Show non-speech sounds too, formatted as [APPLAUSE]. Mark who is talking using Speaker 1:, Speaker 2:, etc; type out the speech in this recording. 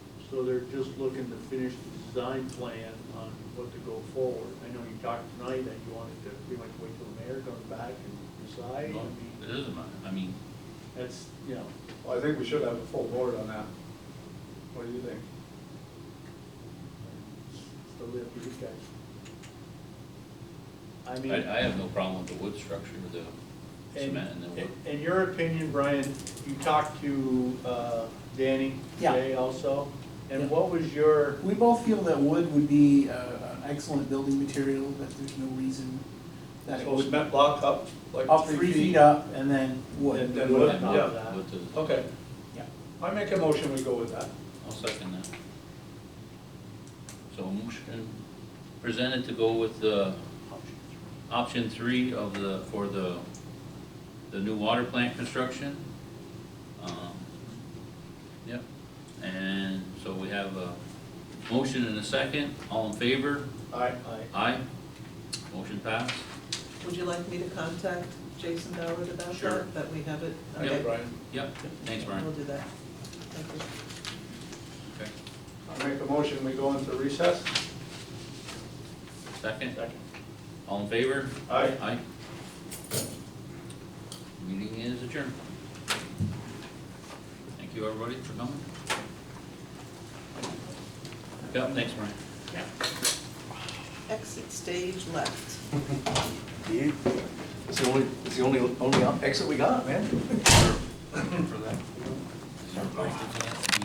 Speaker 1: So they're just looking to finish the design plan on what to go forward. I know you talked tonight that you wanted to pretty much wait till the mayor comes back and decide. I
Speaker 2: Well, It
Speaker 1: mean,
Speaker 2: doesn't matter, I mean,
Speaker 1: that's, you know,
Speaker 3: Well, I think we should have a full board on that. What do you think?
Speaker 1: it's totally up to you guys. I mean.
Speaker 2: I, I have no problem with the wood structure, the
Speaker 1: And-
Speaker 2: cement and the wood.
Speaker 1: In your opinion, Brian, you talked to uh, Danny
Speaker 4: Yeah.
Speaker 1: today also,
Speaker 4: Yeah.
Speaker 1: and what was your,
Speaker 4: We both feel that wood would be uh, an excellent building material, that there's no reason that it
Speaker 3: So
Speaker 4: would.
Speaker 3: cement block up, like
Speaker 4: Up three feet up and then
Speaker 3: And
Speaker 4: wood.
Speaker 3: then wood,
Speaker 2: and
Speaker 1: yeah.
Speaker 2: wood- wood to the-
Speaker 3: Okay,
Speaker 4: Yeah.
Speaker 3: I make a motion, we go with that.
Speaker 2: I'll second that. So motion presented to go with the option three of the, for the, the new water plant construction. Um, Yep, and so we have a motion and a second, all in favor?
Speaker 3: Aye.
Speaker 2: Aye. Motion passed.
Speaker 5: Would you like me to contact Jason Ballard about
Speaker 2: Sure.
Speaker 5: that, that we have it?
Speaker 2: Yeah,
Speaker 5: Okay.
Speaker 3: Brian,
Speaker 2: Yep, thanks,
Speaker 5: We'll
Speaker 2: Brian.
Speaker 5: do that. Thank you.
Speaker 2: Okay.
Speaker 3: I make a motion, we go into recess.
Speaker 2: Second,
Speaker 1: second,
Speaker 2: all in favor?
Speaker 3: Aye.
Speaker 2: Aye. Meeting is adjourned. Thank you, everybody, for coming. Yep, thanks, Brian.
Speaker 5: Exit stage left.
Speaker 3: It's the only, it's the only, [LAUGHS] only exit we got, man.
Speaker 2: Is there a break to that?